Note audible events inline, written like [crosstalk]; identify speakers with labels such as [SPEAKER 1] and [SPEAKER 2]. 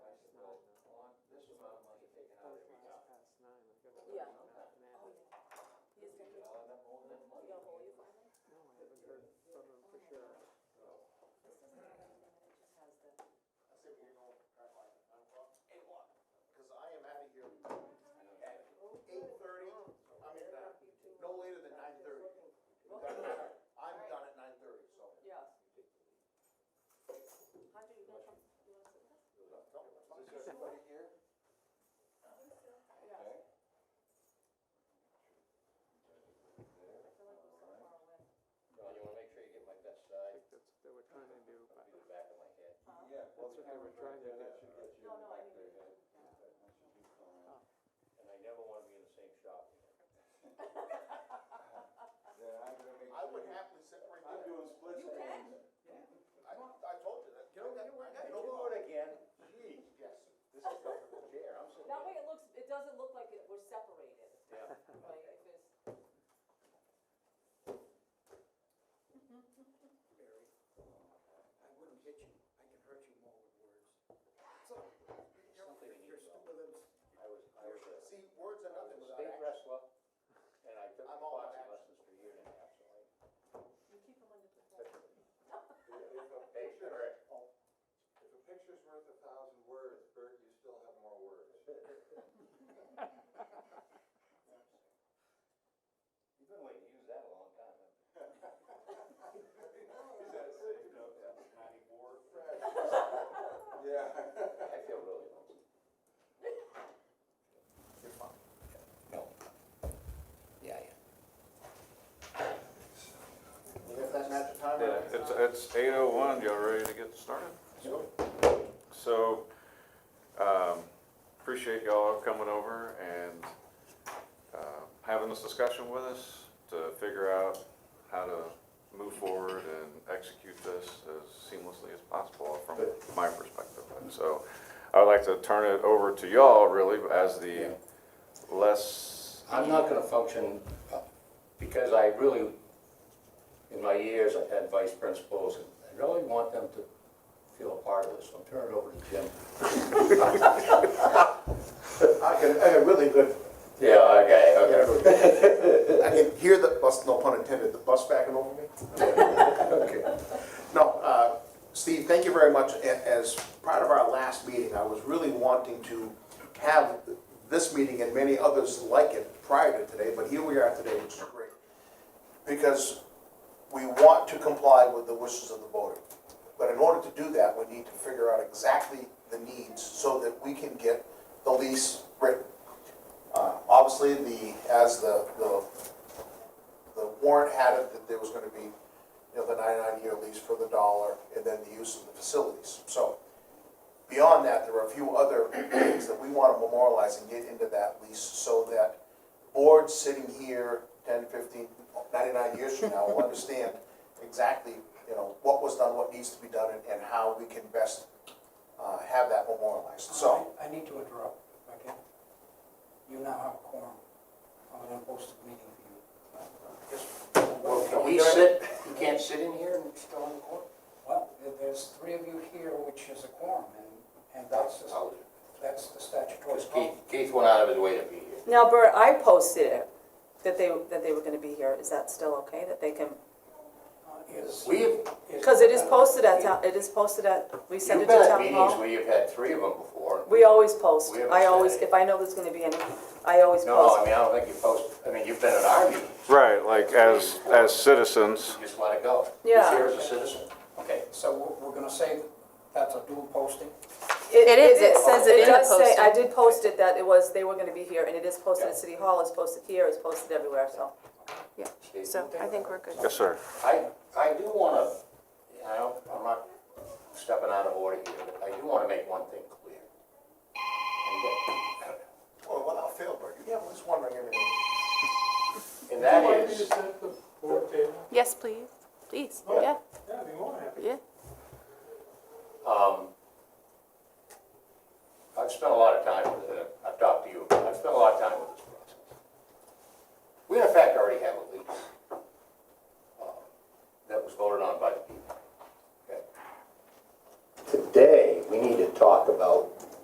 [SPEAKER 1] uh,
[SPEAKER 2] camera track there, that should get you
[SPEAKER 3] No, no,
[SPEAKER 2] in the
[SPEAKER 3] I
[SPEAKER 2] back
[SPEAKER 3] mean- yeah.
[SPEAKER 2] there, yeah. That should be fine.
[SPEAKER 4] And I never want to be in the same shop again.
[SPEAKER 2] Yeah, I'm gonna make
[SPEAKER 1] I would
[SPEAKER 2] sure-
[SPEAKER 1] happily
[SPEAKER 2] I'm
[SPEAKER 1] separate that.
[SPEAKER 2] doing split
[SPEAKER 3] You
[SPEAKER 2] screens.
[SPEAKER 3] can.
[SPEAKER 1] I, I told you that.
[SPEAKER 4] Get over
[SPEAKER 1] I got
[SPEAKER 4] Get
[SPEAKER 1] no
[SPEAKER 4] over
[SPEAKER 1] problem.
[SPEAKER 4] it again, gee,
[SPEAKER 1] Yes.
[SPEAKER 4] this is a comfortable chair, I'm sitting.
[SPEAKER 3] That way it looks, it doesn't look like it- we're separated,
[SPEAKER 4] Yeah,
[SPEAKER 3] right, if it's,
[SPEAKER 5] Barry, I wouldn't hit you, I can hurt you more with words. So,
[SPEAKER 4] Something
[SPEAKER 5] your-
[SPEAKER 4] you
[SPEAKER 5] your
[SPEAKER 4] need to know.
[SPEAKER 5] stupid lips,
[SPEAKER 4] I was, I was a,
[SPEAKER 1] See, words are
[SPEAKER 4] I was
[SPEAKER 1] nothing
[SPEAKER 4] a
[SPEAKER 1] without
[SPEAKER 4] state
[SPEAKER 1] action.
[SPEAKER 4] wrestler, and I took
[SPEAKER 1] I'm all about
[SPEAKER 4] boxing
[SPEAKER 1] action.
[SPEAKER 4] lessons for a year and a half, so I.
[SPEAKER 3] you keep them under control.
[SPEAKER 2] If if a
[SPEAKER 4] Hey,
[SPEAKER 2] picture,
[SPEAKER 4] sure.
[SPEAKER 2] if a picture's worth a thousand words, Bert, you still have more words.
[SPEAKER 4] You've been waiting to use that a long time, haven't you?
[SPEAKER 2] Is that safe? No.
[SPEAKER 1] Ninety-four.
[SPEAKER 2] Yeah.
[SPEAKER 4] [laughs] I feel really lonesome. You're fine. No. Yeah, yeah.
[SPEAKER 1] We have that magic timer.
[SPEAKER 6] It's, it's eight oh one, y'all ready to get started? So, um, appreciate y'all coming over and, uh, having this discussion with us to figure out how to move forward and execute this as seamlessly as possible from my perspective. And so, I'd like to turn it over to y'all really as the less,
[SPEAKER 4] I'm not gonna function, uh, because I really, in my years, I've had vice principals, and I really want them to feel a part of this, so I'm turning it over to Jim.
[SPEAKER 1] I can, I can really good.
[SPEAKER 4] Yeah, okay,
[SPEAKER 1] I can hear the bus, no pun intended, the bus backing over me. No, uh, Steve, thank you very much. A- As part of our last meeting, I was really wanting to have this meeting and many others like it prior to today, but here we are today, which is great. Because we want to comply with the wishes of the voter. But in order to do that, we need to figure out exactly the needs so that we can get the lease written. Uh, Obviously, the, as the, the the warrant had it that there was gonna be, you know, the 99 year lease for the dollar, and then the use of the facilities. So, beyond that, there are a few other things that we wanna memorialize and get into that lease, so that boards sitting here 10, 15, 99 years from now will understand exactly, you know, what was done, what needs to be done, and- and how we can best uh, have that memorialized, so.
[SPEAKER 5] I I need to interrupt, okay? You now have a quorum on an unposted meeting for you.
[SPEAKER 1] we're-
[SPEAKER 4] Can we sit, you can't sit in here and still in the court?
[SPEAKER 5] Well, there- there's three of you here, which is a quorum, and, and that's, the- that's the statutory.
[SPEAKER 4] Because Keith, Keith went out of his way to be here.
[SPEAKER 7] Now, Bert, I posted it, that they, that they were gonna be here, is that still okay, that they can?
[SPEAKER 5] Uh, is-
[SPEAKER 4] We've,
[SPEAKER 5] is-
[SPEAKER 7] Because it is posted at town, it is posted at, we send
[SPEAKER 4] you've
[SPEAKER 7] it
[SPEAKER 4] been
[SPEAKER 7] to
[SPEAKER 4] at
[SPEAKER 7] town
[SPEAKER 4] meetings
[SPEAKER 7] hall.
[SPEAKER 4] where you've had three of them before.
[SPEAKER 7] We always post,
[SPEAKER 4] We haven't
[SPEAKER 7] I
[SPEAKER 4] said
[SPEAKER 7] always,
[SPEAKER 4] anything.
[SPEAKER 7] if I know there's gonna be any, I always
[SPEAKER 4] No, no, I
[SPEAKER 7] post.
[SPEAKER 4] mean, I don't think you post, I mean, you've been at our meetings,
[SPEAKER 6] right, like as, as citizens.
[SPEAKER 4] you just let it go.
[SPEAKER 7] Yeah.
[SPEAKER 4] You're here as a citizen, okay.
[SPEAKER 5] So we're- we're gonna say that that's a dual posting?
[SPEAKER 7] It
[SPEAKER 8] is, it says it in the
[SPEAKER 7] does say- I
[SPEAKER 8] posting.
[SPEAKER 7] did post it that it was, they were gonna be here, and it is posted
[SPEAKER 4] Yeah.
[SPEAKER 7] at City Hall, it's posted here, it's posted everywhere, so.
[SPEAKER 4] Steve?
[SPEAKER 8] So I think we're good.
[SPEAKER 6] Yes, sir.
[SPEAKER 4] I, I do wanna, I don't, I'm not stepping out of order here, but I do wanna make one thing clear. And that-
[SPEAKER 1] Well, without fail, Bert, you have this one ring everything.
[SPEAKER 4] And that
[SPEAKER 2] Would you
[SPEAKER 4] is,
[SPEAKER 2] like me to set the board table?
[SPEAKER 8] Yes, please, please, yeah,
[SPEAKER 2] Yeah, I'd be more than happy.
[SPEAKER 8] yeah.
[SPEAKER 4] um, I've spent a lot of time with, uh, uh,